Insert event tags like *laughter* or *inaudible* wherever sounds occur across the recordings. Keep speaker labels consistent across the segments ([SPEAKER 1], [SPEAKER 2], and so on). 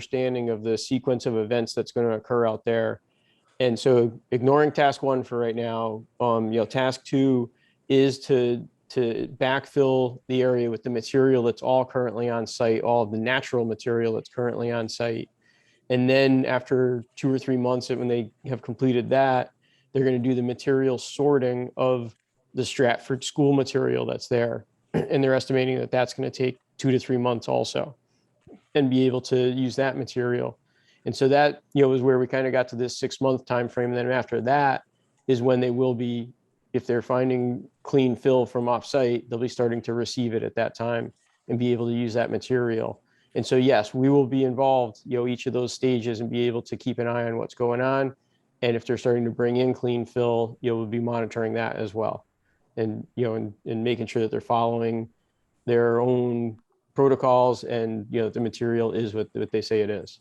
[SPEAKER 1] understanding of the sequence of events that's going to occur out there. And so ignoring task one for right now, um, you know, task two is to, to backfill the area with the material that's all currently on site, all of the natural material that's currently on site. And then after two or three months, when they have completed that, they're going to do the material sorting of the Stratford school material that's there. *clears throat* And they're estimating that that's going to take two to three months also and be able to use that material. And so that, you know, is where we kind of got to this six month time frame. Then after that is when they will be, if they're finding clean fill from offsite, they'll be starting to receive it at that time and be able to use that material. And so, yes, we will be involved, you know, each of those stages and be able to keep an eye on what's going on. And if they're starting to bring in clean fill, you know, we'll be monitoring that as well. And, you know, and, and making sure that they're following their own protocols and, you know, the material is what, what they say it is.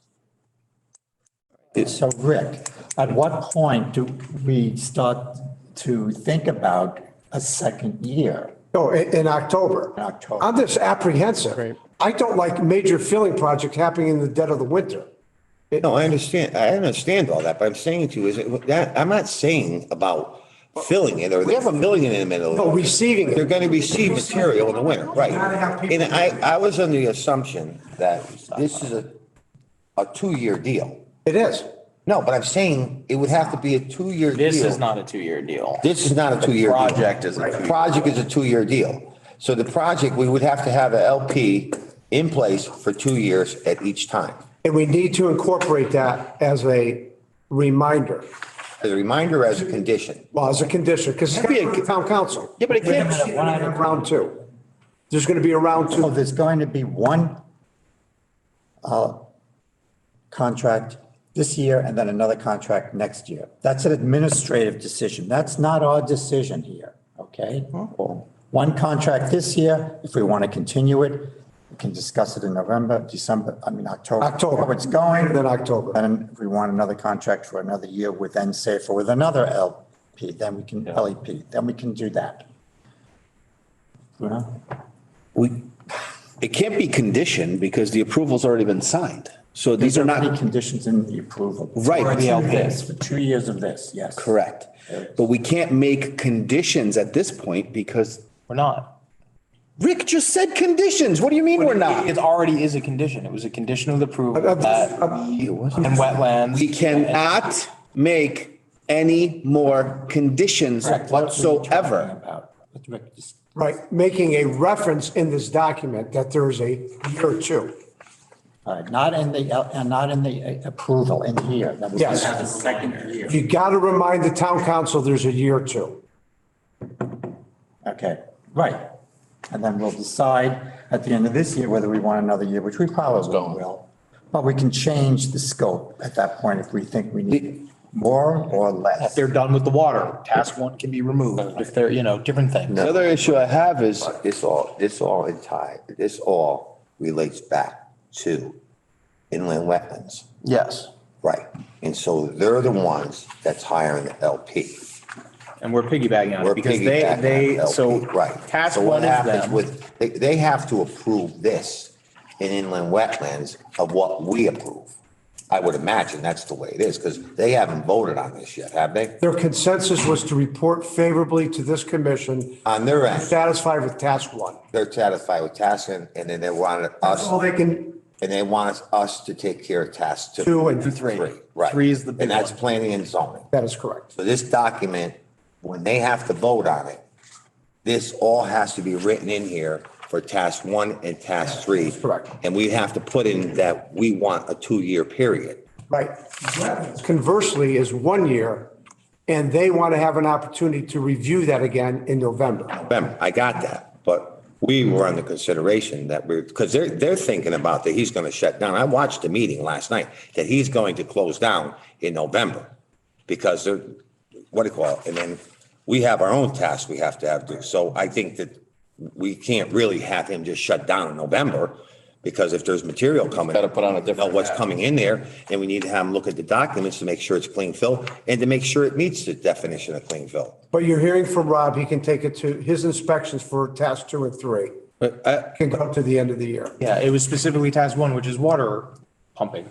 [SPEAKER 2] So Rick, at what point do we start to think about a second year
[SPEAKER 3] No, in, in October.
[SPEAKER 2] in October?
[SPEAKER 3] I'm just
[SPEAKER 1] Right.
[SPEAKER 3] apprehensive. I don't like major filling projects happening in the dead of the winter.
[SPEAKER 4] No, I understand, I understand all that, but I'm saying to you is that- that, I'm not saying about filling it, or they have a million in the middle.
[SPEAKER 3] No, receiving
[SPEAKER 4] They're
[SPEAKER 3] it.
[SPEAKER 4] gonna receive material in the winter, right?
[SPEAKER 3] Gotta have people-
[SPEAKER 4] And I, I was under the assumption that this is a, a two-year deal.
[SPEAKER 3] It is.
[SPEAKER 4] No, but I'm saying it would have to be a two-year deal.
[SPEAKER 5] This is not a two-year deal.
[SPEAKER 4] This is not a two-year. deal.
[SPEAKER 5] project is a two-year
[SPEAKER 4] Project is a two-year deal. So the project, we would have to have a LP in place for two years at each time.
[SPEAKER 3] And we need to incorporate that as a reminder,
[SPEAKER 4] As a reminder, as a condition.
[SPEAKER 3] well, as a condition, because it's
[SPEAKER 4] That'd be
[SPEAKER 3] going to
[SPEAKER 4] a-
[SPEAKER 3] town council.
[SPEAKER 4] Yeah, but it can't-
[SPEAKER 3] We're gonna have a Round two. There's going to be a round
[SPEAKER 2] So
[SPEAKER 3] two.
[SPEAKER 2] there's going to be one uh, contract this year and then another contract next year. That's an administrative decision. That's not our decision here, okay?
[SPEAKER 3] Oh.
[SPEAKER 2] One contract this year, if we want to continue it, we can discuss it in November, December, I mean, October.
[SPEAKER 3] October.
[SPEAKER 2] How it's going.
[SPEAKER 3] Then October.
[SPEAKER 2] And if we want another contract for another year with NSAFE or with another LP, then we can, LEP, then we can do that. You know?
[SPEAKER 6] We, it can't be conditioned because the approval's already been signed. So these are
[SPEAKER 2] Any
[SPEAKER 6] not
[SPEAKER 2] conditions in the approval.
[SPEAKER 6] Right,
[SPEAKER 2] For
[SPEAKER 6] the
[SPEAKER 2] two
[SPEAKER 6] LP.
[SPEAKER 2] years, For two years of this, yes.
[SPEAKER 6] correct. But we can't make conditions at this point because
[SPEAKER 5] We're not.
[SPEAKER 6] Rick just said conditions. What do you mean we're
[SPEAKER 5] It
[SPEAKER 6] not?
[SPEAKER 5] already is a condition. It was a condition of the approval
[SPEAKER 3] Of-
[SPEAKER 5] that
[SPEAKER 3] of-
[SPEAKER 5] and wetlands.
[SPEAKER 6] We cannot make any more conditions whatsoever.
[SPEAKER 2] About what Rick just-
[SPEAKER 3] Right, making a reference in this document that there is a year or two.
[SPEAKER 2] All right, not in the, uh, and not in the uh, approval in here. That was-
[SPEAKER 3] Yes.
[SPEAKER 2] that was the Second year.
[SPEAKER 3] You got to remind the town council there's a year or two.
[SPEAKER 2] Okay, right. And then we'll decide at the end of this year whether we want another year, which we probably will. But we can change the scope at that point if we think we need more or
[SPEAKER 5] If
[SPEAKER 2] less.
[SPEAKER 5] they're done with the water, task one can be removed. If they're, you know, different things.
[SPEAKER 4] The other issue I have is. Uh, This all, this all in tie, this all relates back to inland wetlands.
[SPEAKER 5] Yes.
[SPEAKER 4] Right. And so they're the ones that's hiring the LP.
[SPEAKER 5] And we're piggybacking on
[SPEAKER 4] We're
[SPEAKER 5] it because they,
[SPEAKER 4] piggybacking on
[SPEAKER 5] they,
[SPEAKER 4] LP,
[SPEAKER 5] so
[SPEAKER 4] Right.
[SPEAKER 5] task
[SPEAKER 4] So what
[SPEAKER 5] one is
[SPEAKER 4] happens
[SPEAKER 5] them.
[SPEAKER 4] with- They, they have to approve this in inland wetlands of what we approve. I would imagine that's the way it is because they haven't voted on this yet, have they?
[SPEAKER 3] Their consensus was to report favorably to this commission,
[SPEAKER 4] On their end,
[SPEAKER 3] satisfied with task one.
[SPEAKER 4] they're satisfied with task and and then they wanted us,
[SPEAKER 3] All they can
[SPEAKER 4] and they want us to take care of task two.
[SPEAKER 3] do and
[SPEAKER 5] Three.
[SPEAKER 4] Right.
[SPEAKER 5] Three is the
[SPEAKER 4] And
[SPEAKER 5] big one.
[SPEAKER 4] that's planning and zoning.
[SPEAKER 3] That is correct.
[SPEAKER 4] So this document, when they have to vote on it, this all has to be written in here for task one and task three.
[SPEAKER 3] Correct.
[SPEAKER 4] And we have to put in that we want a two-year period.
[SPEAKER 3] Right. Conversely is one year, and they want to have an opportunity to review that again in November.
[SPEAKER 4] Remember, I got that, but we were under consideration that we're, because they're, they're thinking about that he's going to shut down. I watched the meeting last night, that he's going to close down in November because they're, what do you call it? And then we have our own tasks we have to have to. So I think that we can't really have him just shut down in November because if there's material coming.
[SPEAKER 6] Gotta put on a
[SPEAKER 4] we
[SPEAKER 6] different
[SPEAKER 4] Know what's
[SPEAKER 6] hat.
[SPEAKER 4] coming in there and we need to have him look at the documents to make sure it's clean fill and to make sure it meets the definition of clean fill.
[SPEAKER 3] But you're hearing from Rob, he can take it to his inspections for task two and three. Can go to the end of the year.
[SPEAKER 5] Yeah, it was specifically task one, which is water pumping.